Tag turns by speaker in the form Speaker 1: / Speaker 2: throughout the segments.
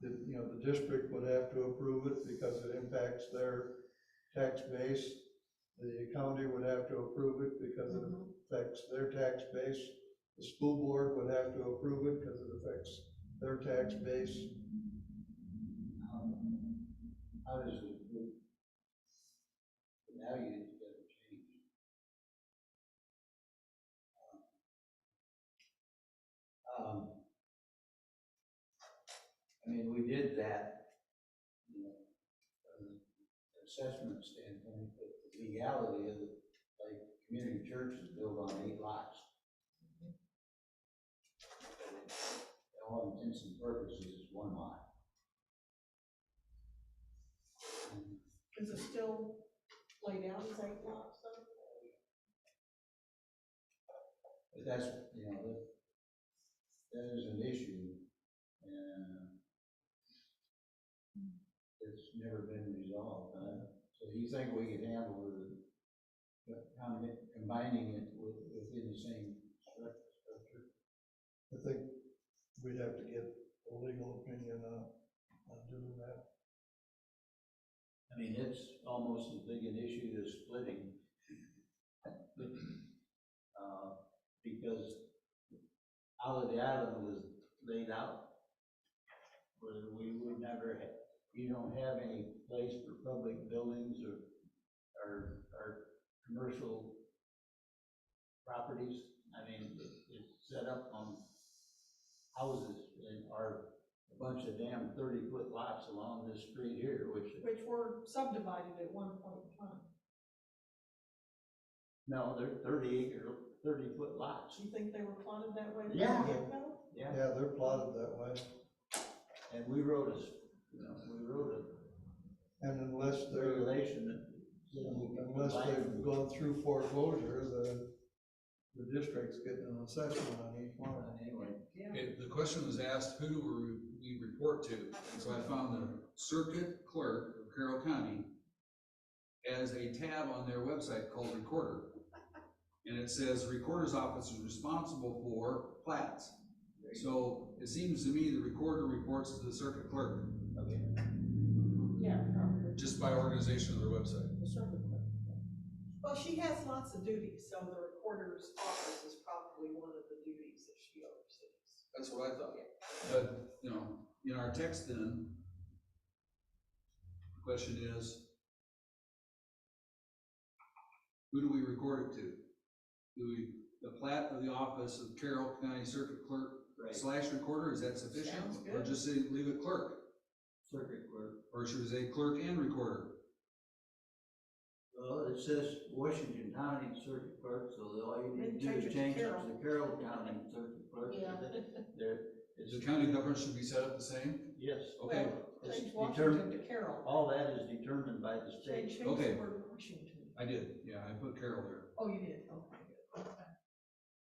Speaker 1: the district would have to approve it because it impacts their tax base. The county would have to approve it because it
Speaker 2: Mm-hmm.
Speaker 1: affects their tax base. The school board would have to approve it because it affects their tax base.
Speaker 3: Um, How does it improve? The value is better change. Um, I mean, we did that, you know, from an assessment standpoint, but the legality of it, like, community church is built on eight lots. And All intents and purposes is one lot.
Speaker 2: Is it still laid out as eight lots though?
Speaker 3: But that's, you know, that, that is an issue, and it's never been resolved, huh? So you think we could handle it, but combi- combining it with, within the same struc- structure?
Speaker 1: I think we'd have to get a legal opinion on, on doing that.
Speaker 3: I mean, it's almost as big an issue as splitting. Uh, Because Holiday Island was laid out, where we would never, ha- you don't have any place for public buildings or, or, or commercial properties. I mean, it- it's set up on houses and are a bunch of damn thirty-foot lots along this street here, which
Speaker 2: Which were subdivided at one point in time.
Speaker 3: No, they're thirty acre, thirty foot lots.
Speaker 2: Do you think they were plotted that way? from the
Speaker 3: Yeah.
Speaker 2: get-go?
Speaker 3: Yeah.
Speaker 1: Yeah, they're plotted that way,
Speaker 3: And we wrote a, s- you know, we wrote
Speaker 1: and unless
Speaker 3: a
Speaker 1: they're,
Speaker 3: regulation that. said we could
Speaker 1: unless
Speaker 3: combine
Speaker 1: they've
Speaker 3: them.
Speaker 1: gone through foreclosure, the, the district's getting an assessment on each one.
Speaker 3: Well, Anyway,
Speaker 2: Yeah.
Speaker 4: It, the question was asked, who were we report to? And so I found the circuit clerk of Carroll County as a tab on their website called Recorder. And it says Recorder's Office is responsible for plats. So it seems to me the recorder reports to the circuit clerk
Speaker 3: okay,
Speaker 2: Yeah, probably.
Speaker 4: just by organization of their website.
Speaker 2: The circuit clerk, yeah. Well, she has lots of duties, so the recorder's office is probably one of the duties that she oversees.
Speaker 4: That's what I thought. But, you know, in our text then, the question is, who do we record it to? Do we, the plat of the office of Carroll County Circuit Clerk
Speaker 3: right,
Speaker 4: slash recorder, is that sufficient?
Speaker 2: Sounds
Speaker 4: Or
Speaker 2: good.
Speaker 4: just say, leave it clerk,
Speaker 3: circuit clerk.
Speaker 4: or should we say clerk and recorder?
Speaker 3: Well, it says Washington County circuit clerk, so all you need to do
Speaker 2: Then change it
Speaker 3: is
Speaker 2: to
Speaker 3: change it
Speaker 2: Carroll.
Speaker 3: to Carroll County circuit clerk. There, it's.
Speaker 4: The county government should be set up the same?
Speaker 3: Yes,
Speaker 4: Okay,
Speaker 2: Well,
Speaker 3: it's
Speaker 2: Change Washington to
Speaker 3: determined-
Speaker 2: Carroll.
Speaker 3: all that is determined by the
Speaker 2: They
Speaker 3: state.
Speaker 2: changed the
Speaker 4: Okay.
Speaker 2: word Washington.
Speaker 4: I did, yeah, I put Carroll there.
Speaker 2: Oh, you did, okay, good.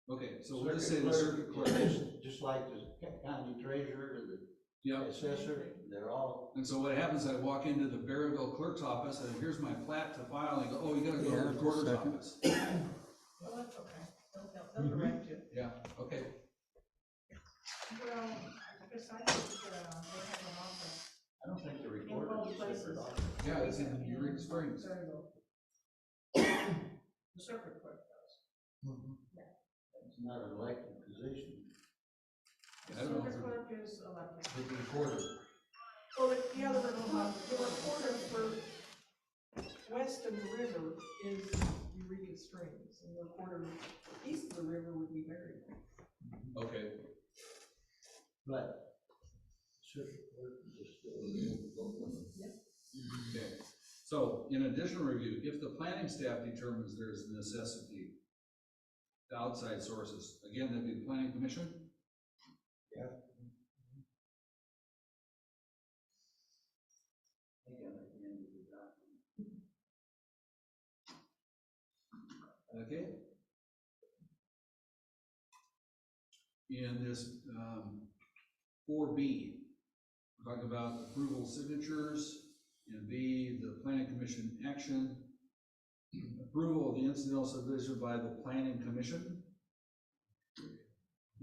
Speaker 4: Okay, so we'll just say the circuit clerk.
Speaker 3: just- Just like the ca- county treasurer, or
Speaker 4: Yep.
Speaker 3: the assessor, they're all
Speaker 4: And so what happens, I walk into the Berryville clerk's office and here's my plat to file, and I go, oh, you gotta go to the recorder's office.
Speaker 2: Well, that's okay. They'll, they'll- they'll
Speaker 4: Mm-hmm.
Speaker 2: direct you.
Speaker 4: Yeah, okay,
Speaker 2: Well, I guess I think, uh, they have an office.
Speaker 3: I don't think the
Speaker 2: In
Speaker 3: recorder
Speaker 2: both
Speaker 3: is separate
Speaker 2: places.
Speaker 3: office.
Speaker 4: yeah, it's in Eureka Springs.
Speaker 2: Very well. The circuit clerk does.
Speaker 3: It's not an elected position.
Speaker 4: I don't know if
Speaker 2: Circuit
Speaker 4: it-
Speaker 2: clerk is elected.
Speaker 4: with the recorder,
Speaker 2: Well, the- the other, one, the recorder for west of the river is Eureka Springs, and the recorder east of the river would be Berry.
Speaker 4: okay,
Speaker 3: But circuit clerk is still.
Speaker 4: okay. So in additional review, if the planning staff determines there's a necessity to outside sources, again, that'd be the planning commission?
Speaker 3: Again, at the end of the document.
Speaker 4: Okay. And this, um, four B, talk about approval signatures, and B, the planning commission action. Approval of the incidental subdivision by the planning commission.